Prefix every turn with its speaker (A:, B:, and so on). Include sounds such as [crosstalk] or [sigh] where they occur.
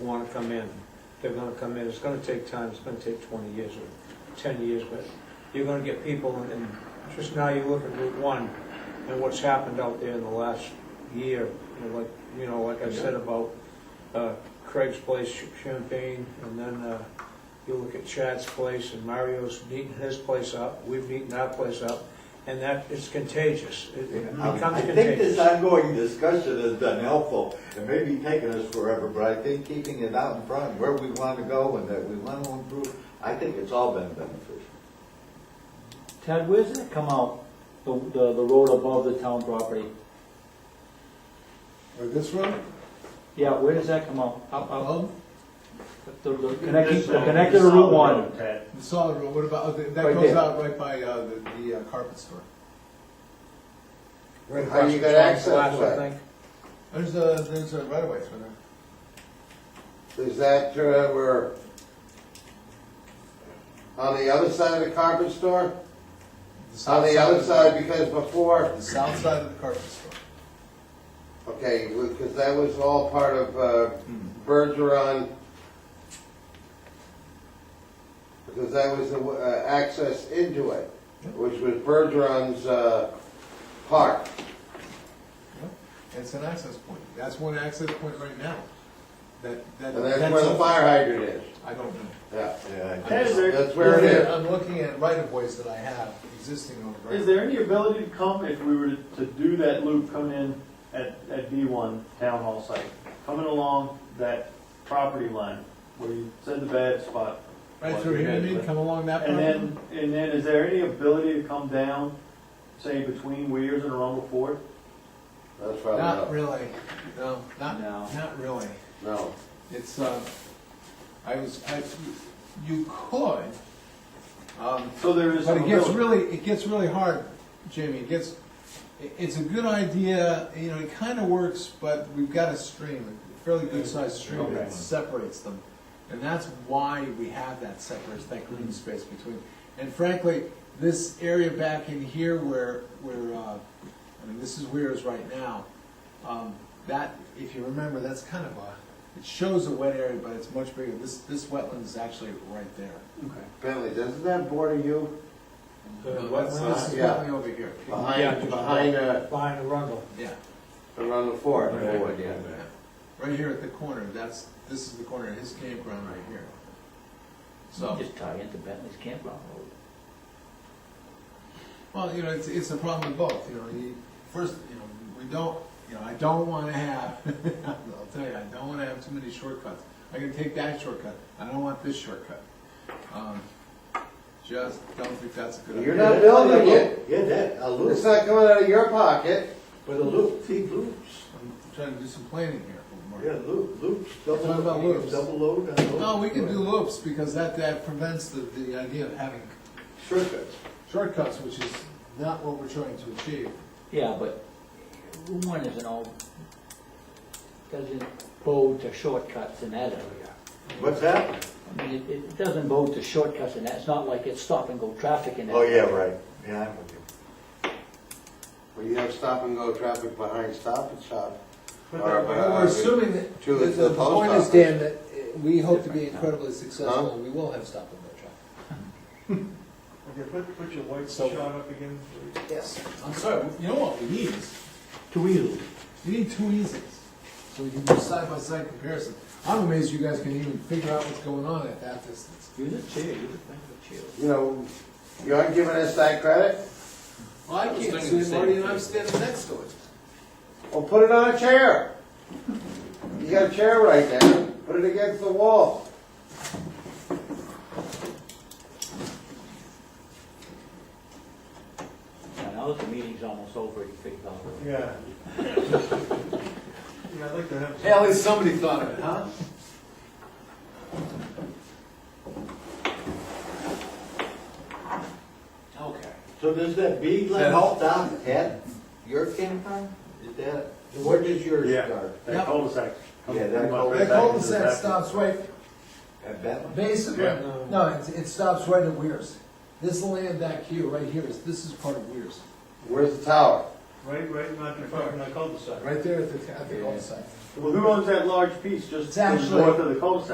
A: want to come in. They're going to come in, it's going to take time, it's going to take 20 years or 10 years, but you're going to get people, and- and just now you look at Route 1 and what's happened out there in the last year, you know, like, you know, like I said about uh, Craig's Place, Champagne, and then uh, you look at Chad's Place, and Mario's beating his place up, we've beaten our place up, and that, it's contagious. It it
B: Um,
A: becomes
B: I
A: contagious.
B: think this ongoing discussion has been helpful, It may be taking us forever, but I think keeping it out in front, where we want to go and that we want to improve, I think it's all been beneficial.
C: Ted, where does it come out, the, the, the road above the town property?
D: Or this one?
C: Yeah, where does that come out? Up, up,
D: Um,
C: the, the connected,
E: uh,
C: the connected to Route One?
D: The solid road, what about, that
C: Right
D: goes
C: there.
D: out right by uh, the the uh, carpet store.
A: Right
F: How you
A: across
F: got
A: the
F: access
A: glass, I
F: to it?
A: think.
D: There's a, there's a right of way through there.
F: Is that uh, where, on the other side of the carpet store? On
D: south
F: the other
D: of-
F: side, because before,
D: The south side of the carpet store.
F: okay, because that was all part of uh, Bergeron. Because that was the uh, access into it, which was Bergeron's uh, park.
D: It's an access point. That's one access point right now. That, that.
F: And that's where the fire hydrant is,
D: I don't know.
F: yeah.
B: Yeah, I
E: Ted, is there,
F: That's where it is.
D: I'm looking at right of ways that I have existing on the right.
E: is there any ability to come, if we were to to do that loop coming in at, at B one town hall site, coming along that property line where you said the bad spot?
D: Right through here, you mean, come along that
E: And
D: property?
E: then, and then is there any ability to come down, say between Weirs and Arundel Ford?
F: That's probably
D: Not
F: not,
D: really, no, not,
C: No.
D: not really.
F: no.
D: It's, uh, I was, I, you could, um,
E: So there is
D: But
E: some
D: it gets
E: ability.
D: really, it gets really hard, Jamie, it gets, it- it's a good idea, you know, it kinda works, but we've got a stream, a fairly good sized stream
E: Mm-hmm. Okay.
D: that separates them. And that's why we have that separates, that
E: Mm-hmm.
D: green space between, and frankly, this area back in here where, where, uh, I mean, this is where it is right now, um, that, if you remember, that's kind of a, it shows a wet area, but it's much bigger, this, this wetland is actually right there.
F: Bentley, doesn't that border you
A: The
D: No,
A: wetlands?
D: that's- This is
F: Yeah.
D: way over here.
A: Yeah,
F: behind,
A: just-
F: behind, uh,
A: Behind Arundel.
D: Yeah,
F: around the fort?
D: right here at the corner, that's, this is the corner of his campground right here. So,
G: Just tie into Bentley's campground road.
D: well, you know, it's, it's a problem with both, you know, you, first, you know, we don't, you know, I don't wanna have, [laughs] I'll tell you, I don't wanna have too many shortcuts. I can take that shortcut, I don't want this shortcut. Um, Just don't think that's a good idea.
F: You're not building it.
B: Yeah, that, a
F: It's
B: loop,
F: not coming out of your pocket.
B: but a loop, see loops.
D: I'm trying to do some planning here. Mark.
B: Yeah, loop, loops, double,
D: Talking about
B: you can
D: loops.
B: double load on those.
D: No, we can do loops, because that, that prevents the, the idea of having
B: Shortcuts.
D: shortcuts, which is not what we're trying to achieve.
G: Yeah, but Route One isn't all, doesn't bode to shortcuts in that area.
B: What's that?
G: I mean, it, it doesn't bode to shortcuts in that, it's not like it's stop and go traffic in that.
B: Oh, yeah, right, yeah, I'm with you.
F: Well, you have stop and go traffic behind Stop and Shop. Or
D: But We're assuming that,
F: To
D: the-
F: the
D: the
F: post
D: point is,
F: office.
D: Dan, that uh, we hope to be incredibly successful,
F: Huh?
D: and we will have stop and go traffic.
E: Okay, put, put your white
D: So- shot
E: up again.
D: Yes. I'm sorry, you know what we need is,
G: Too easily.
D: we need two easels, so we can do side-by-side comparison. I'm amazed you guys can even figure out what's going on at that distance.
G: Use a chair, use a bench or chair.
F: You know, you aren't giving us that credit?
D: Well, I can't see it, Marty, and I'm standing next to it.
F: Well, put it on a chair. You got a chair right there. Put it against the wall.
G: Yeah, Now that the meeting's almost over, you figure out.
E: Yeah. Yeah, I'd like to have.
D: At least somebody thought of it, huh? Okay.
B: So does that bead line
D: Yes.
B: help down at your campground? Is that, where does yours
E: Yeah.
B: start?
D: Yep.
E: That cul-de-sac.
B: Yeah, that cul-de-sac.
E: Come right
D: That
E: back into
D: cul-de-sac
E: that.
D: stops right,
B: At that one?
D: basically,
E: Yeah.
D: no, it, it stops right at Weirs. This land back here, right here, is, this is part of Weirs.
F: Where's the tower?
E: Right, right, not in front of the cul-de-sac.
D: Right there at the, at the cul-de-sac.
B: Well, who owns that large piece just
E: It's
B: to the
E: actually-
B: north of the cul-de-sac?